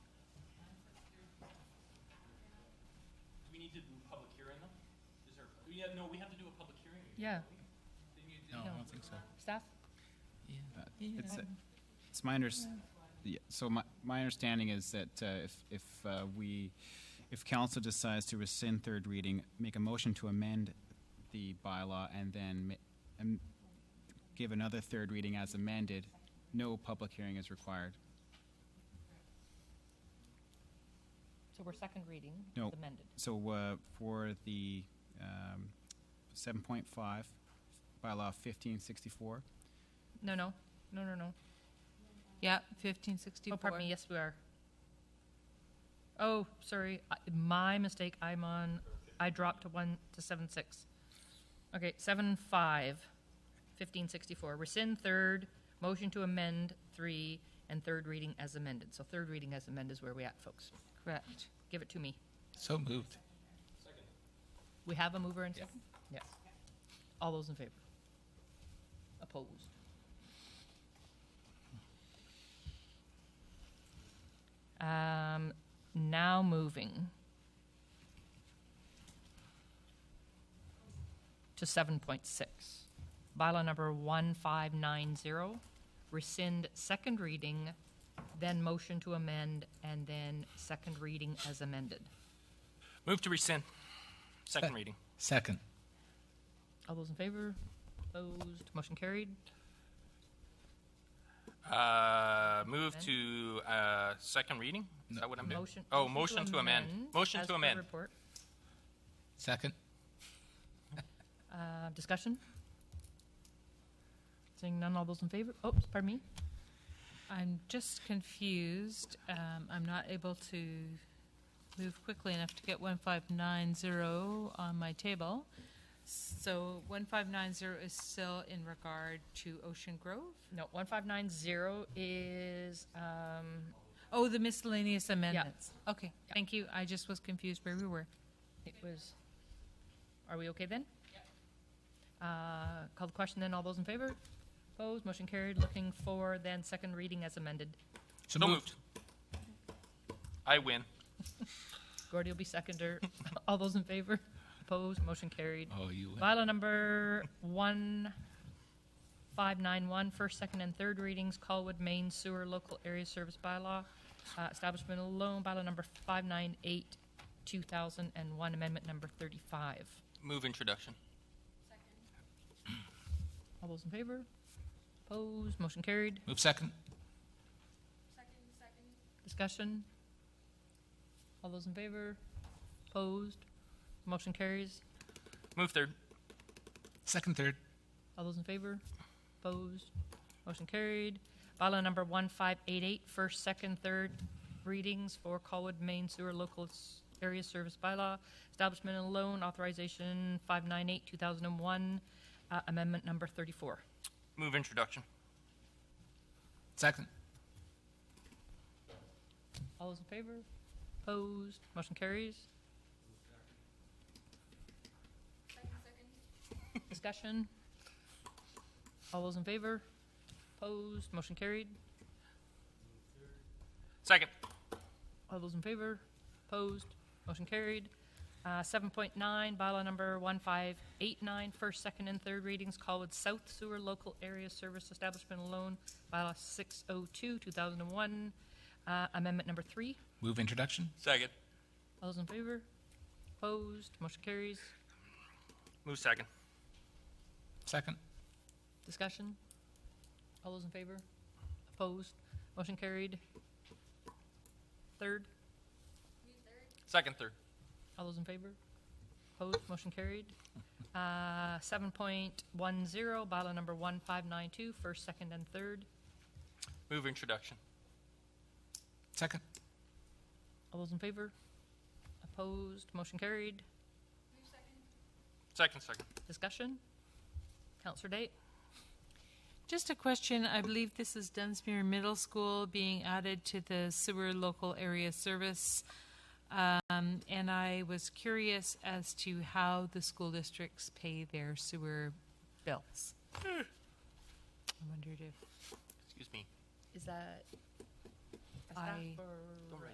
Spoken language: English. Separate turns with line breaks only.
need to do a public hearing them? Is there, yeah, no, we have to do a public hearing.
Yeah.
Didn't you do-
No, I
No.
don't think so.
Staff?
Uh,
Yeah.
It's, uh, it's my unders, yeah, so my, my understanding is that uh, if, if uh, we, if council decides to rescind third reading, make a motion to amend the bylaw and then ma- am- give another third reading as amended, no public hearing is required.
So we're second reading,
No.
it's amended.
So uh, for the um, 7.5, bylaw 1564,
No, no, no, no, no.
Yeah, fifteen sixty-four.
Oh, pardon me, yes, we are. Oh, sorry, I- my mistake, I'm on, I dropped to one, to seven, six. Okay, seven, five, fifteen sixty-four, rescind third, motion to amend three, and third reading as amended. So third reading as amended is where we at, folks.
Correct.
Give it to me.
So moved.
We have a mover and second? Yes. All those in favor? Opposed? Um, now moving to seven point six. Bylaw number one five nine zero, rescind second reading, then motion to amend, and then second reading as amended.
Move to rescind, second reading.
Second.
All those in favor? Opposed? Motion carried.
Uh, move to, uh, second reading? Is that what I'm doing?
Motion.
Oh, motion to amend, motion
as
to
per
amend.
report.
Second.
Uh, Discussion? Seeing none, all those in favor? Oh, pardon me?
I'm just confused. Um, I'm not able to move quickly enough to get one five nine zero on my table. So one five nine zero is still in regard to Ocean Grove?
No, 1590 is, um,
Oh, the miscellaneous amendments. Okay, thank you. I just was confused where we were.
it was, are we okay then? Uh, Call the question then, all those in favor? Opposed? Motion carried. Looking for then second reading as amended.
So moved. I win.
Gordy will be seconder. All those in favor? Opposed? Motion carried.
Oh, you win.
Bylaw number one five nine one, first, second, and third readings, Colwood Main Sewer Local Area Service Bylaw, uh, Establishment of Loan, bylaw number five nine eight, two thousand and one, amendment number thirty-five.
Move introduction.
All those in favor? Opposed? Motion carried.
Move second.
Discussion? All those in favor? Opposed? Motion carries.
Move third.
Second, third.
All those in favor? Opposed? Motion carried. Bylaw number 1588, first, second, third readings for Colwood Main Sewer Local S- Area Service Bylaw, Establishment and Loan Authorization 598, 2001, uh, Amendment Number 34.
Move introduction.
Second.
All those in favor? Opposed? Motion carries. Discussion? All those in favor? Opposed? Motion carried.
Second.
All those in favor? Opposed? Motion carried. Uh, 7.9, bylaw number 1589, first, second, and third readings, Colwood South Sewer Local Area Service Establishment Loan, bylaw 602, 2001, uh, amendment number three.
Move introduction.
Second.
All those in favor? Opposed? Motion carries.
Move second.
Second.
Discussion? All those in favor? Opposed? Motion carried. Third?
Second, third.
All those in favor? Opposed? Motion carried. Uh, 7.10, bylaw number 1592, first, second, and third.
Move introduction.
Second.
All those in favor? Opposed? Motion carried.
Second, second.
Discussion? Counselor Date?
Just a question, I believe this is Dunsmuir Middle School being added to the sewer local area service. Um, and I was curious as to how the school districts pay their sewer bills. I wondered if
Excuse me.
Is that
I,
or?